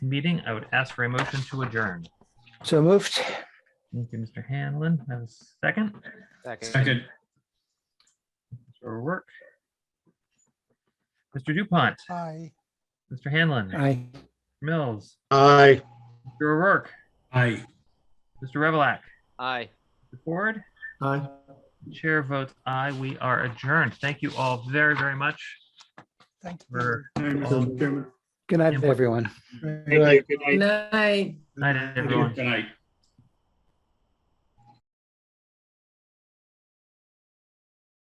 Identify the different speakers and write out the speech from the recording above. Speaker 1: meeting, I would ask for a motion to adjourn.
Speaker 2: So moved.
Speaker 1: Thank you, Mr. Hanlon. I have a second.
Speaker 3: Second.
Speaker 1: Mr. O'Rourke. Mr. Dupont,
Speaker 4: Aye.
Speaker 1: Mr. Hanlon,
Speaker 2: Aye.
Speaker 1: Mills,
Speaker 5: Aye.
Speaker 1: Mr. O'Rourke,
Speaker 3: Aye.
Speaker 1: Mr. Revelak,
Speaker 6: Aye.
Speaker 1: Mr. Ford.
Speaker 5: Aye.
Speaker 1: Chair votes aye. We are adjourned. Thank you all very, very much
Speaker 4: Thank you.
Speaker 1: for
Speaker 3: Mr. Chairman.
Speaker 2: Good night, everyone.
Speaker 5: Good night.
Speaker 1: night, everyone.
Speaker 3: Good night.